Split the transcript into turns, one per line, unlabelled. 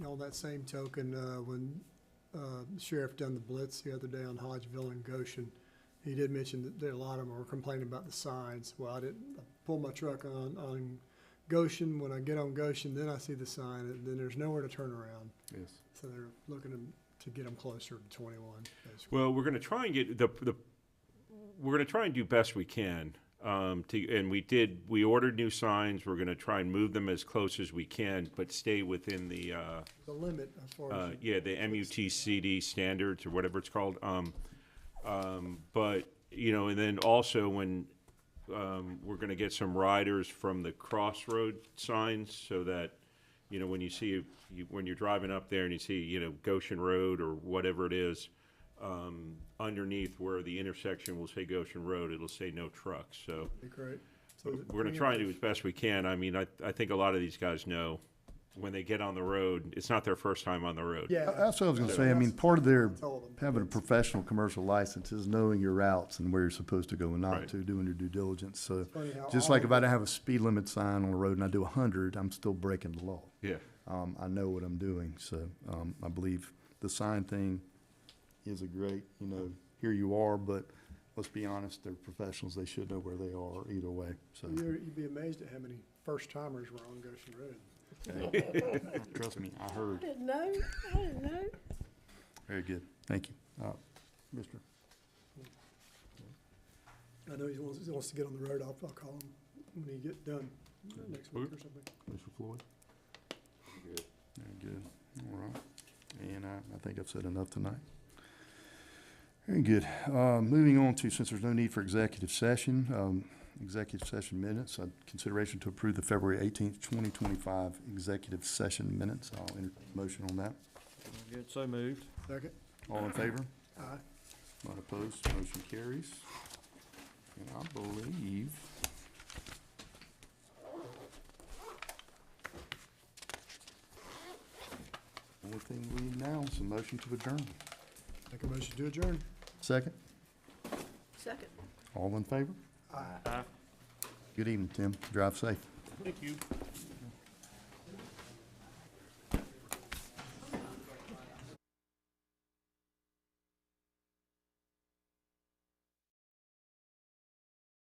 that same token, uh, when uh, Sheriff done the blitz the other day on Hodgeville and Goshen, he did mention that there, a lot of them were complaining about the signs. Well, I didn't I pull my truck on, on Goshen. When I get on Goshen, then I see the sign, and then there's nowhere to turn around.
Yes.
So they're looking to- to get them closer to twenty-one, basically.
Well, we're going to try and get the, the we're going to try and do best we can. Um, to, and we did, we ordered new signs. We're going to try and move them as close as we can, but stay within the, uh,
The limit as far
uh,
as,
yeah, the MUTCD standards or whatever it's called. Um, um, but, you know, and then also when, um, we're gonna get some riders from the crossroad signs so that, you know, when you see, you, when you're driving up there and you see, you know, Goshen Road or whatever it is, um, underneath where the intersection will say Goshen Road, it'll say no trucks, so.
be great. So is it
We're gonna try and do as best we can. I mean, I, I think a lot of these guys know when they get on the road, it's not their first time on the road.
Yeah.
That's what I was gonna say. I mean, part of their
Told 'em.
having a professional commercial license is knowing your routes and where you're supposed to go and
Right.
not to, doing your due diligence. So
funny how
just
all
like
of
if I don't have a speed limit sign on the road and I do a hundred, I'm still breaking the law.
Yeah.
Um, I know what I'm doing, so, um, I believe the sign thing is a great, you know, here you are, but let's be honest, they're professionals. They should know where they are either way, so.
You're- You'd be amazed at how many first-timers were on Goshen Road.
Trust me, I heard.
didn't know, I didn't know.
Very good. Thank you. Uh, Mr.
I know he wants, he wants to get on the road. I'll, I'll call him when he get done next week or something.
Mr. Floyd? Very good. All right. And I, I think I've said enough tonight. Very good. Uh, moving on to, since there's no need for executive session, um, executive session minutes, uh, consideration to approve the February eighteenth, twenty twenty-five executive session minutes. I'll entertain a motion on that.
Good, so moved.
Second?
All in favor?
Aye.
Not opposed, motion carries. And I believe. Only thing we need now is a motion to adjourn.
Make a motion to adjourn.
Second,
Second.
all in favor?
Aye.
Good evening, Tim. Drive safe.
Thank you.